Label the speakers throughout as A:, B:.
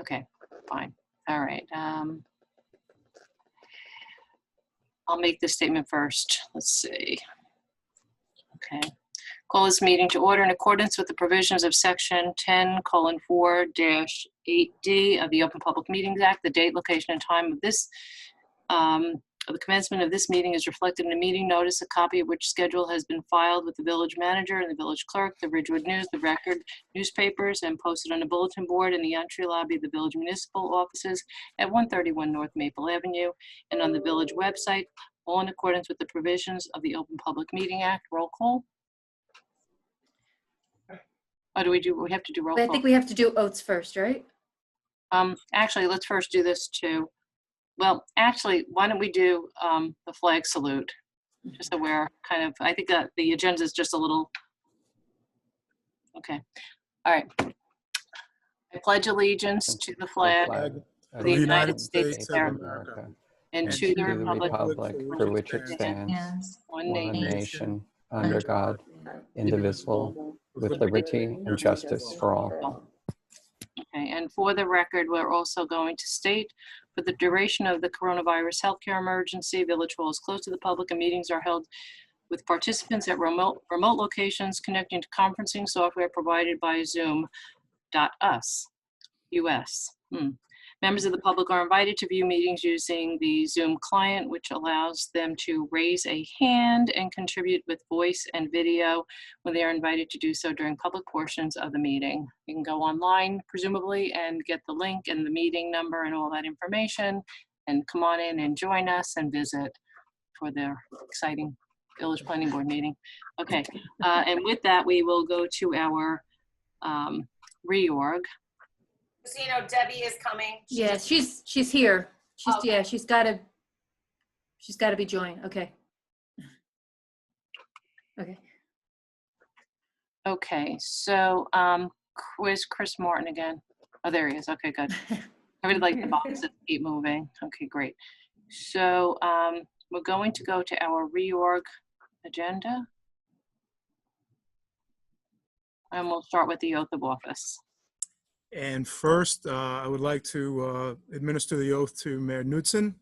A: Okay, fine. All right. um, I'll make this statement first. Let's see. Okay. Call this meeting to order in accordance with the provisions of section 10 colon 4 dash 8D of the Open Public Meetings Act. The date, location, and time of this, um, of the commencement of this meeting is reflected in a meeting notice, a copy of which schedule has been filed with the village manager and the village clerk, the Ridgewood News, the Record, newspapers and posted on a bulletin board in the entry lobby of the village municipal offices at 131 North Maple Avenue and on the village website, all in accordance with the provisions of the Open Public Meeting Act. Roll call. Or do we do, we have to do roll
B: I
A: call?
B: think we have to do oats first, right?
A: Um, actually, let's first do this too. Well, actually, why don't we do, um, the flag salute? Just so we're kind of, I think that the agenda is just a little. Okay, all right. I pledge allegiance to the flag
C: flag
A: of
C: of
A: the United States of America
C: America,
A: and to the republic
C: republic
A: for
C: for which it stands,
D: Yes.
A: one
C: one
A: nation,
C: nation, under God, indivisible, with liberty and justice for all.
A: Okay, and for the record, we're also going to state, for the duration of the coronavirus healthcare emergency, Village Hall is closed to the public and meetings are held with participants at remote, remote locations connecting to conferencing software provided by Zoom.us, US. Hmm. Members of the public are invited to view meetings using the Zoom client, which allows them to raise a hand and contribute with voice and video when they are invited to do so during public portions of the meeting. You can go online presumably and get the link and the meeting number and all that information and come on in and join us and visit for their exciting Village Planning Board meeting. Okay, uh, and with that, we will go to our um, reorg.
E: So you know Debbie is coming. She
B: Yeah,
E: just-
B: she's, she's here. She's,
E: Okay.
B: yeah, she's gotta, she's gotta be joined. Okay. Okay.
A: Okay, so um, where's Chris Martin again? Oh, there he is. Okay, good. I really like the boxes keep moving. Okay, great. So um, we're going to go to our reorg agenda. And we'll start with the oath of office.
F: And first, uh, I would like to uh, administer the oath to Mayor Knudsen.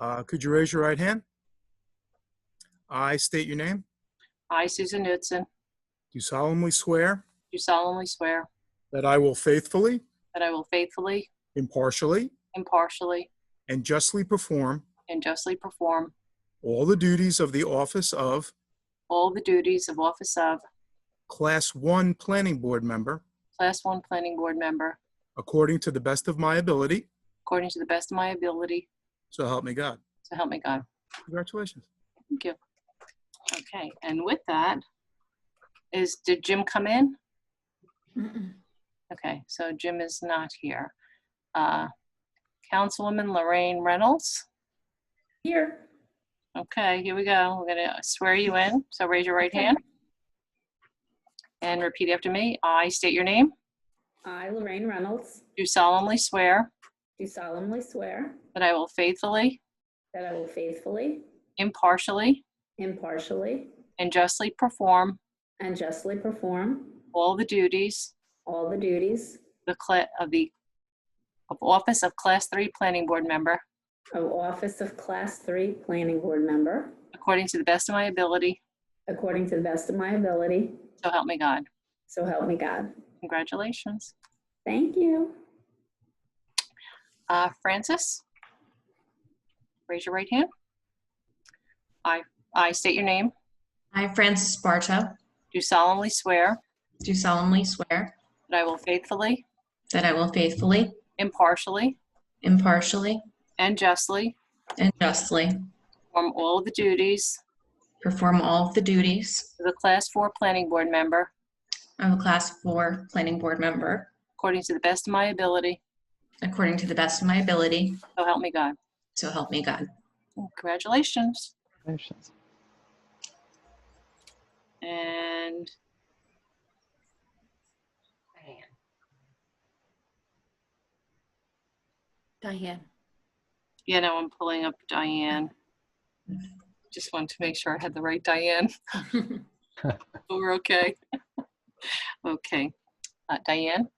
F: Uh, Could you raise your right hand? I state your name.
A: I, Susan Knudsen,
F: Do solemnly swear
A: do solemnly swear
F: that I will faithfully,
A: that I will faithfully,
F: impartially,
A: impartially,
F: and justly perform
A: and justly perform
F: all the duties of the office of
A: all the duties of office of
F: Class 1 Planning Board Member
A: Class 1 Planning Board Member
F: according to the best of my ability,
A: according to the best of my ability,
F: so help me God.
A: so help me God.
F: Congratulations.
A: Thank you. Okay, and with that, is, did Jim come in?
B: Mm-mm.
A: Okay, so Jim is not here. Uh, Councilwoman Lorraine Reynolds? Here. Okay, here we go. We're gonna swear you in, so raise your right hand. And repeat after me. I state your name.
G: I, Lorraine Reynolds,
A: Do solemnly swear
G: do solemnly swear
A: that I will faithfully,
G: that I will faithfully,
A: impartially,
G: impartially,
A: and justly perform
G: and justly perform
A: all the duties
G: all the duties
A: the cla- of the of office of Class 3 Planning Board Member
G: of office of Class 3 Planning Board Member
A: according to the best of my ability,
G: according to the best of my ability,
A: so help me God.
G: so help me God.
A: Congratulations.
G: Thank you.
A: Uh, Francis? Raise your right hand. I, I state your name.
D: I, Francis Barto,
A: Do solemnly swear
D: do solemnly swear
A: that I will faithfully,
D: that I will faithfully,
A: impartially,
D: impartially,
A: and justly
D: and justly
A: perform all the duties
D: perform all of the duties
A: of the Class 4 Planning Board Member
D: of a Class 4 Planning Board member
A: according to the best of my ability,
D: according to the best of my ability,
A: so help me God.
D: so help me God.
A: Congratulations. And
B: Diane.
A: you know, I'm pulling up Diane. Just wanted to make sure I had the right Diane. But We're okay. Okay. Uh, Diane?